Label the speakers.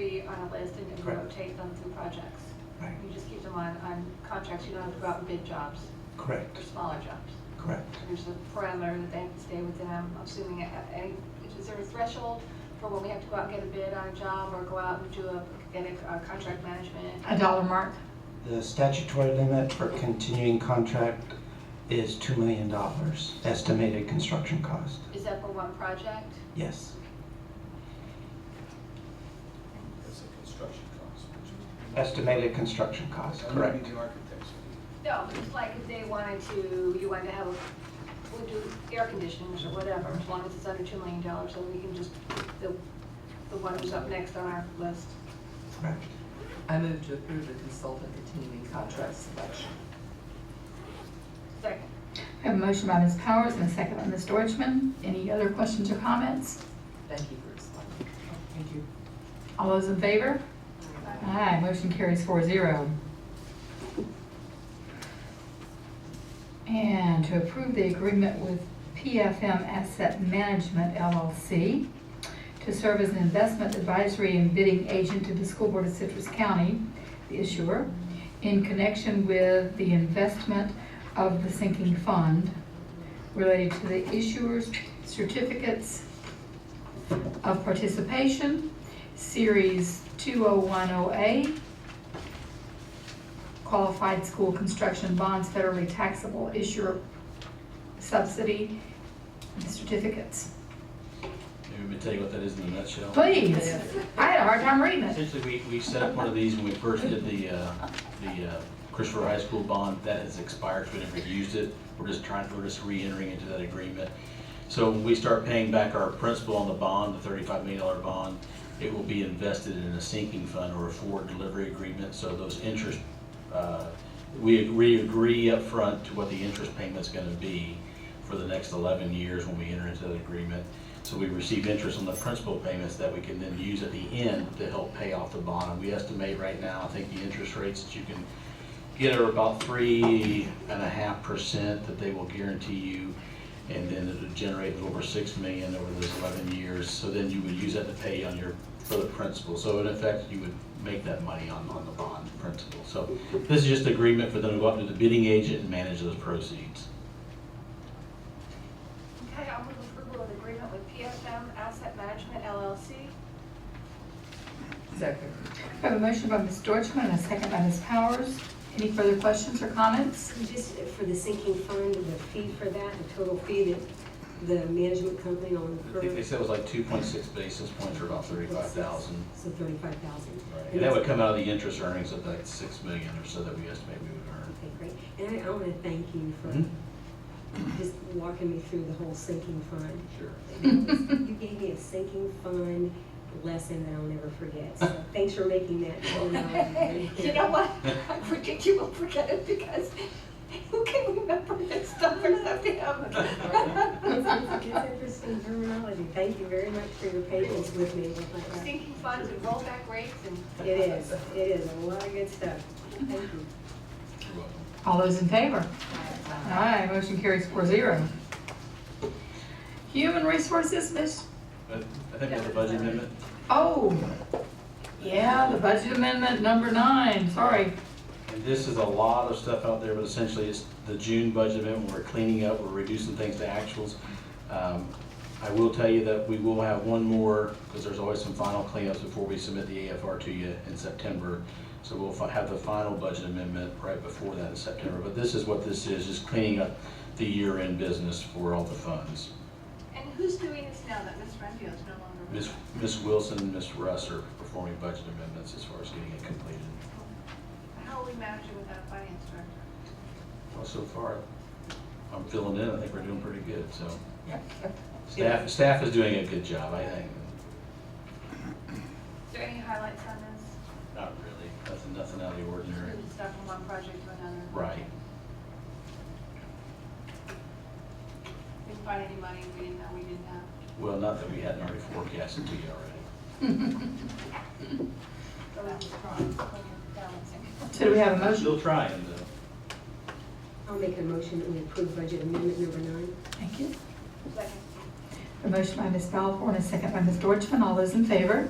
Speaker 1: list and and
Speaker 2: Correct.
Speaker 1: rotate them through projects.
Speaker 2: Right.
Speaker 1: You just keep them on, on contracts, you don't have to go out and bid jobs
Speaker 2: Correct,
Speaker 1: or smaller jobs.
Speaker 2: correct.
Speaker 1: There's a parameter that they have to stay within, I'm assuming, a- a- is there a threshold for when we have to go out and get a bid on a job or go out and do a, get a uh, contract management?
Speaker 3: A dollar mark?
Speaker 2: The statutory limit for continuing contract is $2 million, estimated construction cost.
Speaker 1: Is that for one project?
Speaker 2: Yes,
Speaker 4: That's a construction cost. which is-
Speaker 2: estimated construction cost,
Speaker 4: That
Speaker 2: correct.
Speaker 4: would be the architects.
Speaker 1: No, but just like if they wanted to, you wanted to have, a- we'll do air conditioners or whatever, as long as it's under two million dollars, then we can just, the, the one who's up next on our list.
Speaker 2: Correct.
Speaker 5: I move to approve the consultant continuing contract selection.
Speaker 1: Second.
Speaker 3: I have a motion by Ms. Powers and a second by Ms. Deutschman. Any other questions or comments?
Speaker 5: Thank you for explaining. Thank you.
Speaker 3: All those in favor? Aye, motion carries four zero. And to approve the agreement with PFM Asset Management LLC to serve as an investment advisory and bidding agent to the School Board of Citrus County, the issuer, in connection with the investment of the sinking fund related to the issuer's certificates of participation, Series 20108, qualified school construction bonds, federally taxable issuer subsidy certificates.
Speaker 6: Maybe we can tell you what that is in a nutshell.
Speaker 3: Please, I had a hard time reading it.
Speaker 6: Essentially, we, we set up one of these when we first did the, uh, the uh, Christopher High School bond. That has expired, so we never used it. We're just trying, we're just re-entering into that agreement. So when we start paying back our principal on the bond, the thirty-five million dollar bond, it will be invested in a sinking fund or a forward delivery agreement. So those interest, uh, we, we agree upfront to what the interest payment's gonna be for the next eleven years when we enter into that agreement. So we receive interest on the principal payments that we can then use at the end to help pay off the bond. And we estimate right now, I think the interest rates that you can get are about three and a half percent that they will guarantee you. And then it'll generate over six million over those eleven years. So then you would use that to pay on your, for the principal. So in effect, you would make that money on, on the bond principal. So this is just agreement for them to go up to the bidding agent and manage those proceeds.
Speaker 1: Okay, I'll move approval of agreement with PFM Asset Management LLC.
Speaker 5: Second.
Speaker 3: I have a motion by Ms. Deutschman and a second by Ms. Powers. Any further questions or comments?
Speaker 7: Just for the sinking fund, the fee for that, the total fee that the management company on
Speaker 6: I
Speaker 7: the
Speaker 6: think they
Speaker 7: current,
Speaker 6: said it was like two point six basis points or about thirty-five thousand.
Speaker 7: so thirty-five thousand.
Speaker 6: And that would come out of the interest earnings of that six million or so that we estimate we would earn.
Speaker 7: Okay, great. And I, I want to thank you
Speaker 6: Mhm.
Speaker 7: for just walking me through the whole sinking fund.
Speaker 6: Sure.
Speaker 7: You gave me a sinking fund lesson that I'll never forget, so thanks for making that.
Speaker 1: You know what? I predict you will forget it because who can remember this stuff except him?
Speaker 7: It's interesting terminology. Thank you very much for your patience with me.
Speaker 1: Sinking funds and rollback rates and
Speaker 7: It is, it is a lot of good stuff. Thank you.
Speaker 6: You're welcome.
Speaker 3: All those in favor? Aye, motion carries four zero. Human Resources, Ms.
Speaker 6: But I think that's a budget amendment.
Speaker 3: Oh, yeah, the budget amendment number nine, sorry.
Speaker 6: And this is a lot of stuff out there, but essentially it's the June budget amendment, we're cleaning up, we're reducing things to actuals. Um, I will tell you that we will have one more, because there's always some final cleanups before we submit the AFR to you in September. So we'll fi- have the final budget amendment right before that in September. But this is what this is, just cleaning up the year-end business for all the funds.
Speaker 1: And who's doing this now that Miss Renfield is no longer?
Speaker 6: Ms. Ms. Wilson and Ms. Russ are performing budget amendments as far as getting it completed.
Speaker 1: How are we managing without a finance director?
Speaker 6: Well, so far, I'm filling in, I think we're doing pretty good, so. Staff, staff is doing a good job, I think.
Speaker 1: Is there any highlights on this?
Speaker 6: Not really, nothing, nothing out of the ordinary.
Speaker 1: Moving stuff from one project to another?
Speaker 6: Right.
Speaker 1: We find any money we didn't know we didn't have?
Speaker 6: Well, not that we hadn't already forecasted to you already.
Speaker 1: So that was wrong, so we're balancing.
Speaker 3: So do we have a motion?
Speaker 6: Still trying, though.
Speaker 7: I'll make a motion that we approve budget amendment number nine.
Speaker 3: Thank you.
Speaker 1: Second.
Speaker 3: A motion by Ms. Balfour and a second by Ms. Deutschman, all those in favor?